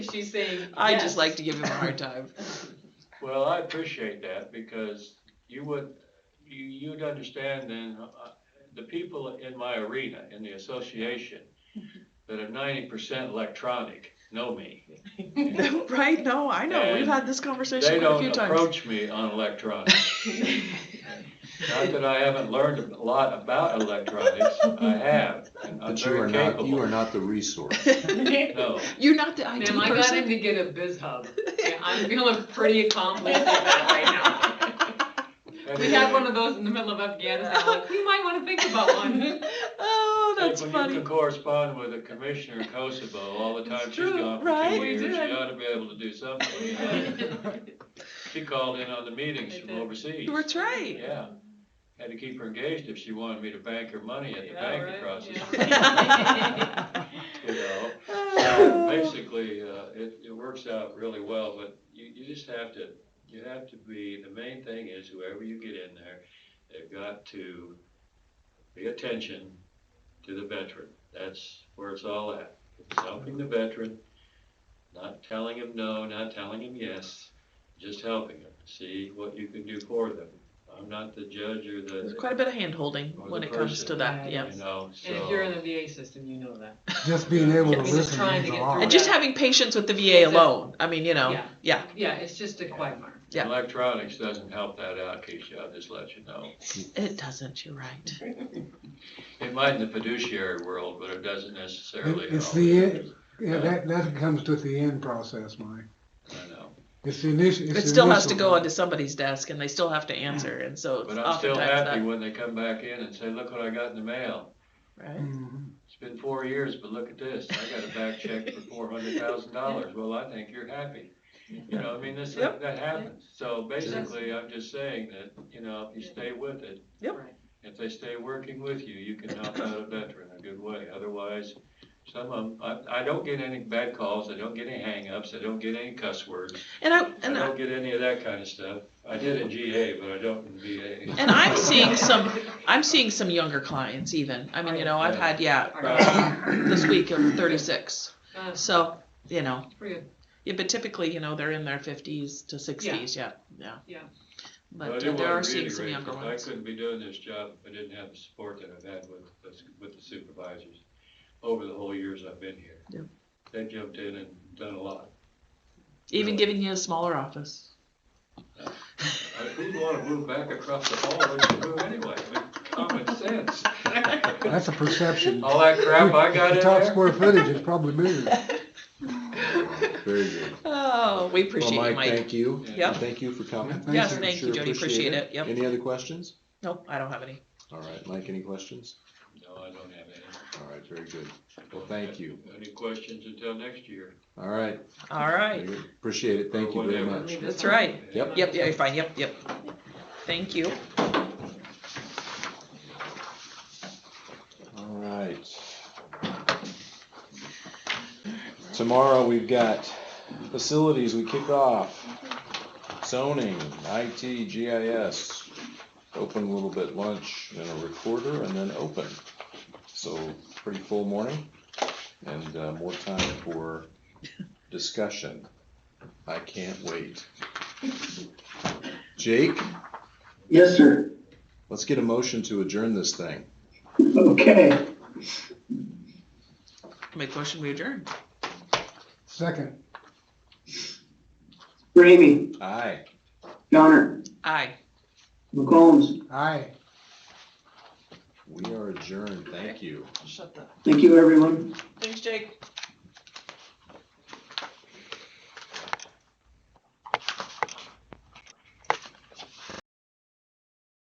she's saying. I just yes. like to give him a hard time. Well, I appreciate that because you would, you, you'd understand then, uh, the people in my arena, in the association, that are ninety percent electronic, know me. right? No, I know. We've And had this conversation They quite a don't few times. approach me on electronics. Not that I haven't learned a lot about electronics, I have, and I'm But you are very not, you are capable. not the resource. No, You're not the IT Ma'am, I got him person. to get a biz hub. Yeah, I'm feeling pretty accomplished in that right now. We had one of those in the middle of Afghanistan, like, we might wanna think about one. oh, Hey, that's when funny. you can correspond with a commissioner in Kosovo all the time It's she's true, gone for right? two We years, did. you ought to be able to do something. you know? She called in on the meetings I from did. overseas. That's right. Yeah. Had to keep her engaged if she wanted me to bank her money at the Yeah, bank right, across the yeah. street, you know? So Oh, Basically, uh, it, it works out really well, but you, you just have to, you have to be, the main thing is whoever you get in there, they've got to pay attention to the veteran. That's where it's all at. It's helping the veteran, not telling him no, not telling him yes, just helping him, see what you can do for them. I'm not the judge or There's the, quite a bit of hand holding Or the when it comes person. to that. Right. Yeah. you know, so. And if you're in the VA system, you know that. Just being able to Yes. Just listen trying means to a get lot. through And just Yeah. having patience with the VA alone. I mean, you know, Yeah. yeah. Yeah, it's just a quagmire. Yeah. Electronics doesn't help that out, Keisha, I'll just let you know. It doesn't, you're right. It might in the fiduciary world, but it doesn't necessarily. It- it's always. the- Yeah, that, that comes with the end process, Mike. I know, It's the initial. It still has to go onto somebody's desk and they still have to answer. And so it's but I'm still oftentimes happy that, when they come back in and say, look what I got in the mail. right? on. It's been four years, but look at this, I got a back check for four hundred thousand dollars, well, I think you're happy. You know, I mean, this, Yep. that happens, so basically, I'm just saying that, you know, if you stay with it, Yep. Right. if they stay working with you, you can help out a veteran a good way. Otherwise, some of them, I, I don't get any bad calls, I don't get any hangups, I don't get any cuss words. And I I and I, don't get any of that kind of stuff. I did in GA, but I don't in VA. and I'm seeing some I'm seeing some younger clients even. I mean, you know, I've had yeah, uh, this week of 36. Uh, So, you know, pretty good. yeah, but typically, you know, they're in their 50s to 60s. Yeah, yeah. Yeah. But it uh, there are wasn't seeing really some great, younger because I ones. couldn't be doing this job if I didn't have the support that I've had with, the s- with the supervisors over the whole years I've been here. Yeah. They jumped in and done a lot. Even really. giving you a smaller office. I wouldn't want to move back across the hall, where'd you move anyway? I mean, Common sense. That's a perception. All that Oh, crap I got The in top there. square footage is probably bigger. Very good. Oh, we appreciate Well, you, Mike. Thank you. Yeah. Yep. And Thank you for coming. Thank Yes, you. thank you, Sure Jody. Appreciate it. Yep. Any other questions? Nope, I don't have any. All right, Mike, any questions? No, I don't have any. All right, very good. Well, thank you. Any questions until next year? All right. All very right. good. Appreciate it. Thank you very Whatever. much. That's right. Yep. Yep, yeah, you're fine. Yep, yep. Thank you. All right. Tomorrow, we've got facilities, we kick off zoning, IT, GIS. Open a little bit, lunch and a recorder and then open. So pretty full morning and uh, more time for discussion. I can't wait. Jake, Yes, sir. let's get a motion to adjourn this thing. Okay. Make motion, we adjourn. Second, Ramey, Aye. Donner, Aye. McCombs, aye. We are adjourned. Thank you. Shut the. thank you, everyone. Thanks, Jake.